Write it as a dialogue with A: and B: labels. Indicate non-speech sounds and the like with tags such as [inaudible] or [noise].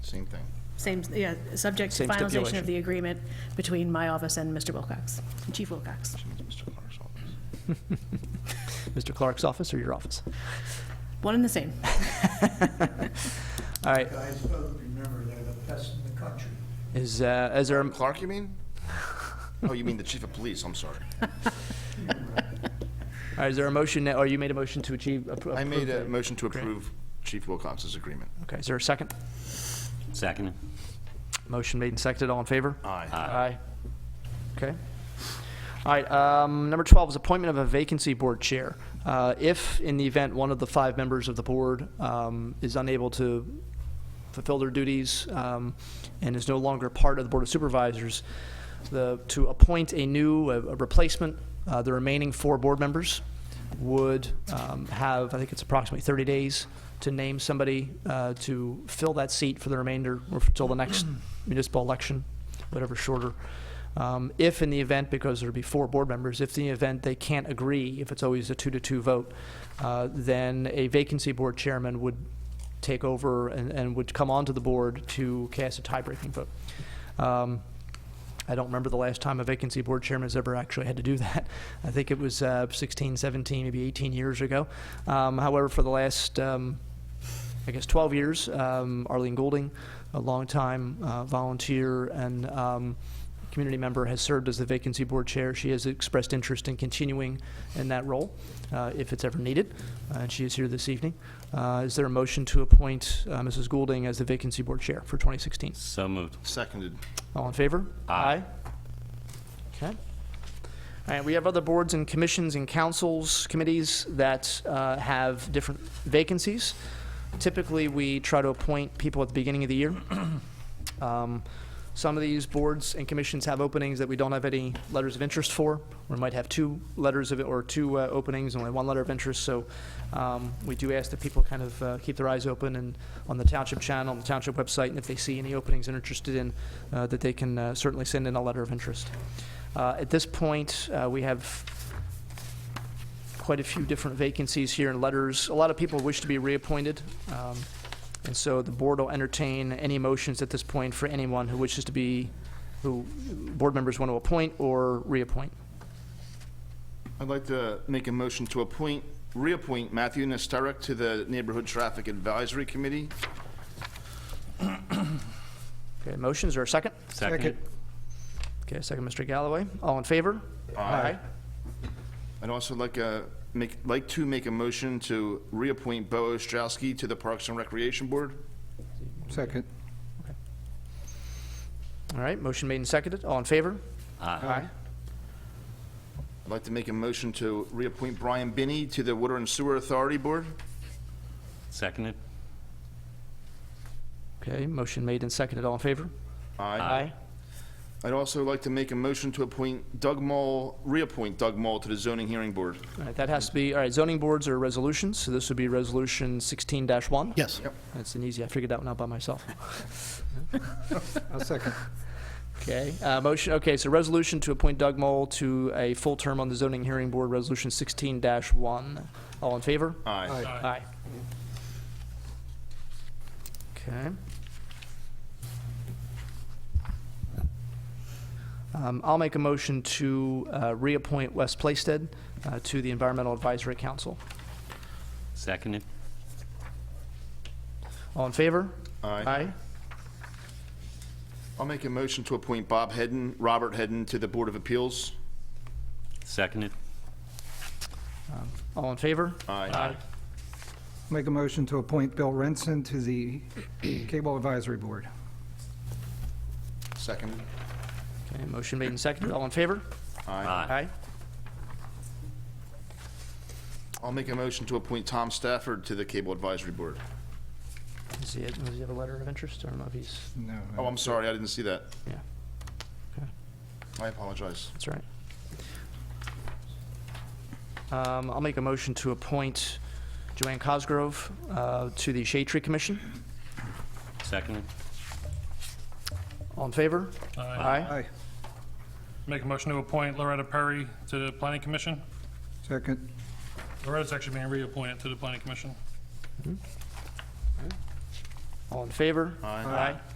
A: Same thing.
B: Same, yeah, subject to
C: Same
B: finalization
C: stipulation.
B: of the agreement between my office and Mr. Wilcox, Chief Wilcox.
A: She means Mr. Clark's office.
C: Mr. Clark's office or your office?
B: One and the same.
C: All right,
D: Guys, both remember they're the best in the country.
C: is, uh, is there,
A: Um, Clark, you mean? Oh, you mean the chief of police, I'm sorry.
C: uh, is there a motion, that- or you made a motion to achieve? appro-
A: I made a
C: approve
A: motion to
C: Okay.
A: approve Chief Wilcox's agreement.
C: the- Okay, is there a second?
E: Second.
C: Motion made and seconded, all in favor?
A: Aye.
C: Aye. Okay. All right, um, number 12 is appointment of a vacancy board chair. Uh, If, in the event, one of the five members of the board um, is unable to fulfill their duties um, and is no longer part of the Board of Supervisors, the, to appoint a new, a a replacement, uh, the remaining four board members would um, have, I think it's approximately 30 days, to name somebody uh, to fill that seat for the remainder, or until the next municipal election, whatever shorter. Um, If in the event, because there'd be four board members, if in the event they can't agree, if it's always a two-to-two vote, uh, then a vacancy board chairman would take over and, and would come onto the board to cast a tie-breaking vote. Um, I don't remember the last time a vacancy board chairman has ever actually had to do that. [laughs] I think it was uh, 16, 17, maybe 18 years ago. Um, However, for the last, um, I guess, 12 years, um, Arlene Goulding, a longtime uh, volunteer and um, community member, has served as the vacancy board chair. She has expressed interest in continuing in that role uh, if it's ever needed, uh, and she is here this evening. Uh, Is there a motion to appoint uh, Mrs. Goulding as the vacancy board chair for 2016?
E: So moved.
A: Seconded.
C: All in favor?
E: Aye.
C: Okay. All right, we have other boards and commissions and councils, committees that uh, have different vacancies. Typically, we try to appoint people at the beginning of the year. [clears throat] Um, Some of these boards and commissions have openings that we don't have any letters of interest for. We might have two letters of, it or two uh, openings, only one letter of interest. So um, we do ask that people kind of uh, keep their eyes open and on the township channel, on the township website, and if they see any openings they're interested in, uh, that they can uh, certainly send in a letter of interest. Uh, At this point, uh, we have quite a few different vacancies here and letters. A lot of people wish to be reappointed. um, And so the board will entertain any motions at this point for anyone who wishes to be, who board members want to appoint or reappoint.
A: I'd like to make a motion to appoint, reappoint Matthew Nesterek to the Neighborhood Traffic Advisory Committee.
C: Okay, motions or a second?
E: Second.
C: Okay, a second, Mr. Galloway. All in favor? Aye.
A: I'd also like a, make, like to make a motion to reappoint Bo Ostrowski to the Parks and Recreation Board.
D: Second.
C: All right, motion made and seconded. All in favor?
E: Aye.
A: I'd like to make a motion to reappoint Brian Binney to the Water and Sewer Authority Board.
E: Seconded.
C: Okay, motion made and seconded. All in favor?
A: I'd also like to make a motion to appoint Doug Moll, reappoint Doug Moll to the Zoning Hearing Board.
C: All right, that has to be, all right, zoning boards are resolutions, so this would be resolution sixteen one?
F: Yes,
C: That's an easy, I figured that one out by myself.
F: I'll second.
C: Okay, uh, motion, okay, so resolution to appoint Doug Mole to a full term on the zoning hearing board, resolution sixteen one. All in favor?
A: Aye.
F: Aye.
C: Aye. Okay. Um, I'll make a motion to, uh, reappoint Wes Plaisted, uh, to the Environmental Advisory Council.
E: Seconded.
C: All in favor? Aye.
A: I'll make a motion to appoint Bob Hedden, Robert Hedden to the Board of Appeals.
E: Seconded.
C: All in favor?
A: Aye.
F: Make a motion to appoint Bill Renson to the Cable Advisory Board.
A: Second.
C: Okay, motion made and seconded, all in favor?
E: Aye.
C: Aye.
A: I'll make a motion to appoint Tom Stafford to the Cable Advisory Board.
C: Does he, does he have a letter of interest? I don't know if he's,
F: No.
A: Oh, I'm sorry, I didn't see that.
C: yeah,
A: I apologize.
C: that's all right. Um, I'll make a motion to appoint Joanne Cosgrove, uh, to the Shade Tree Commission.
E: Seconded.
C: All in favor? Aye.
F: Aye.
G: Make a motion to appoint Loretta Perry to the Planning Commission.
F: Second.
G: Loretta's actually being reappointed to the Planning Commission.
H: All in favor?
C: Aye.